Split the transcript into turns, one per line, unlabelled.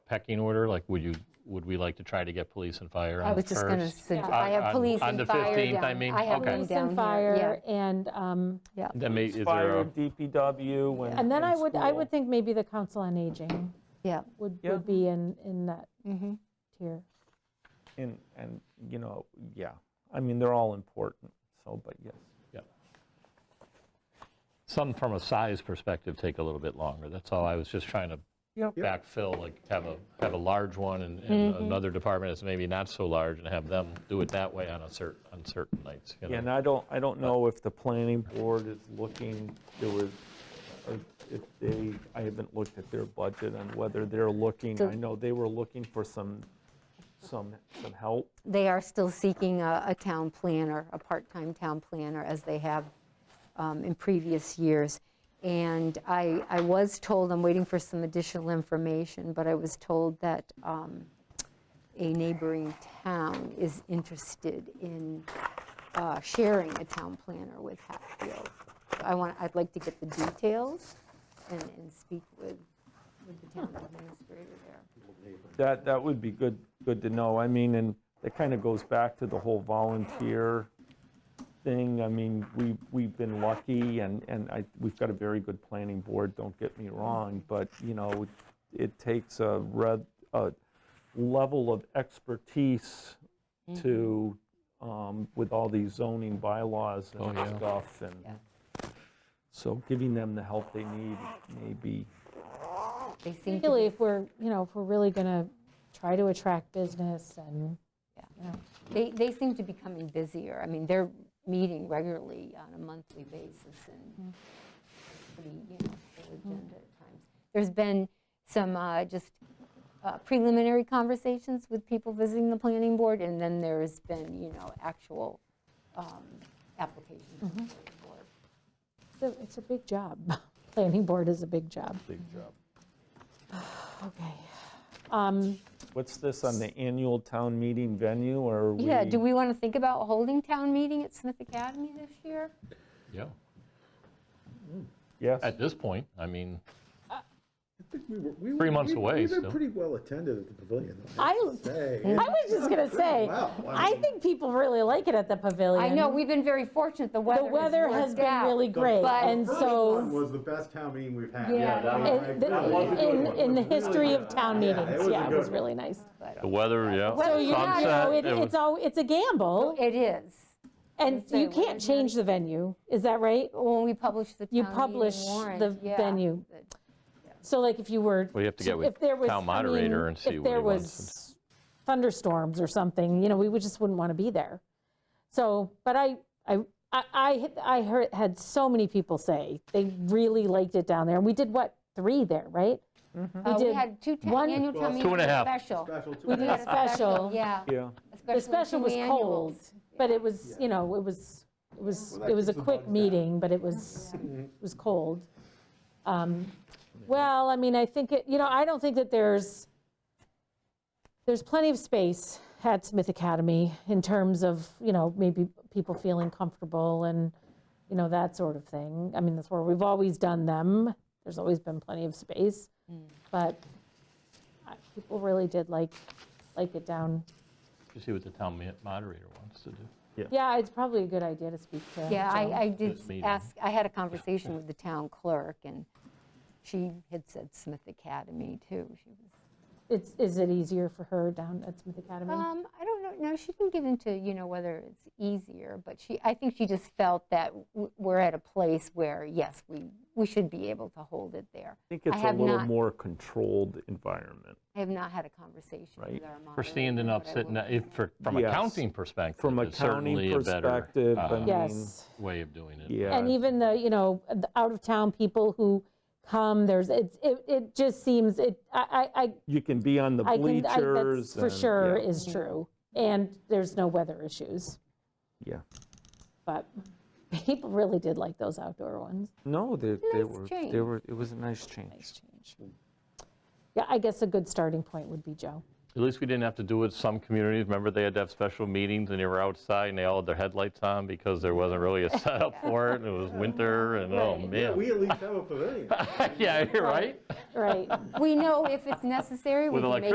pecking order? Like, would you, would we like to try to get police and fire
I
on the
was
first?
just going to suggest,
On-
I have
on-
police
on the
and fire
15th,
down.
I mean?
I have
Okay.
police
Police and
down here,
fire, and, um,
yeah, yeah,
Then may, is there
Fire,
a,
DPW, and.
and then I would, I
school.
would think maybe the Council on Aging
yeah.
would,
Yeah.
would be in, in that
Mhm.
tier.
And, and, you know, yeah, I mean, they're all important, so, but yes.
some from a size perspective take a little bit longer. That's all. I was just trying to
Yep.
backfill, like have a, have a large one and and
Mm-hmm.
another department that's maybe not so large and have them do it that way on a certain, on certain nights, you know?
Yeah, And I don't, I don't know if the planning board is looking, there was, uh, if they, I haven't looked at their budget and whether they're looking,
So-
I know they were looking for some, some, some help.
They are still seeking a, a town planner, a part-time town planner, as they have um, in previous years. And I, I was told, I'm waiting for some additional information, but I was told that um, a neighboring town is interested in uh, sharing a town planner with Hatfield. I want, I'd like to get the details and, and speak with, with the town administrator there.
That, that would be good, good to know. I mean, and it kind of goes back to the whole volunteer thing. I mean, we, we've been lucky and, and I, we've got a very good planning board, don't get me wrong, but, you know, it takes a red, a level of expertise to, um, with all these zoning bylaws
Mm-hmm. Oh,
and
yeah.
stuff and so giving them the help they need may be
They seem to
Particularly if we're, you know, if we're really going to try to attract business and, you know,
They, they seem to be coming busier. I mean, they're meeting regularly on a monthly basis and pretty, you know, full agenda at times. There's been some uh, just uh, preliminary conversations with people visiting the planning board, and then there's been, you know, actual um, applications. to the planning board.
it's a- it's a big job. Planning board is a big job.
a big job.
Okay. Um,
What's this on the annual town meeting venue or?
Yeah, do we want to think about holding town meeting at Smith Academy this year?
Yeah.
Yes.
At this point, I mean,
I think we were, we were.
Three months
we-
away
We've
still.
been pretty well attended at the pavilion. though,
I,
have to say.
I was just going to say,
Wow, I
I
mean-
think people really like it at the pavilion.
I know, we've been very fortunate, the weather
The weather has
worked
been
out.
really great,
But-
and
First one
so,
was the best town meeting we've had.
Yeah, Yeah, that
in- in, in the history of town
Yeah, it
meetings,
was a
yeah, it
good
was
one.
really nice.
the weather, yeah.
So you you know, it- it's all, it's a gamble,
It is.
and
say
you
weather
can't change the venue, is that right?
When we publish the town
You
meeting
publish
warrant,
the
yeah.
venue. So like if you were.
Well, you have to get with
if there was-
town
I
moderator
mean,
and see
if
what he
there
wants
was Thunderstorms or something, you know, we would just wouldn't want to be there. So, but I, I, I- I, had- I heard, had so many people say they really liked it down there. And we did what, three there, right?
Uh, We
did
had two ta-
one-
annual town meetings.
Two and a half.
Special.
Special too.
We did a special.
Yeah.
Yeah,
especially
The special
two
was
annuals.
cold, but it was, you know, it was, it was,
Well, that
it was a
keeps the bugs
quick
down.
meeting, but it was, it was cold. Um, Well, I mean, I think, it. you know, I don't think that there's, there's plenty of space at Smith Academy in terms of, you know, maybe people feeling comfortable and, you know, that sort of thing. I mean, that's where we've always done them. There's always been plenty of space. But I- people really did like, like it down
You see what the town ma- moderator wants to do.
yeah, it's probably a good idea to speak to.
Yeah,
Jill.
I, I did
This meeting.
ask, I had a conversation with the town clerk, and she had said Smith Academy, too. She was,
It's, is it easier for her down at Smith Academy?
um, I don't know, no, she didn't get into, you know, whether it's easier, but she, I think she just felt that w- we're at a place where, yes, we, we should be able to hold it there.
I think it's a
have
little
not-
more controlled environment.
I have not had a conversation with
Right.
our moderator.
For standing up,
but I
sitting,
will.
if, for- from a
Yes.
counting perspective,
From a
it's certainly
county
a better
perspective,
uh,
I mean,
Yes.
way of doing it.
yeah.
And even the, you know, the out-of-town people who come, there's, it, it, it just seems, it, I, I, I-
You can be on the
I can, I-
bleachers.
that's for
and-
sure
yeah,
is true. And there's no weather issues,
Yeah.
but people really did like those outdoor ones.
No, they, they
Nice
were,
change.
they were, it was a nice change.
Nice change. Yeah, I guess a good starting point would be Joe.
At least we didn't have to do it some communities. Remember, they had to have special meetings and they were outside and they all had their headlights on because there wasn't really a setup for it and it was winter and oh
Right.
man.
We at least have a pavilion.
Yeah, you're right.
Right.
We know if it's necessary, we
With
can make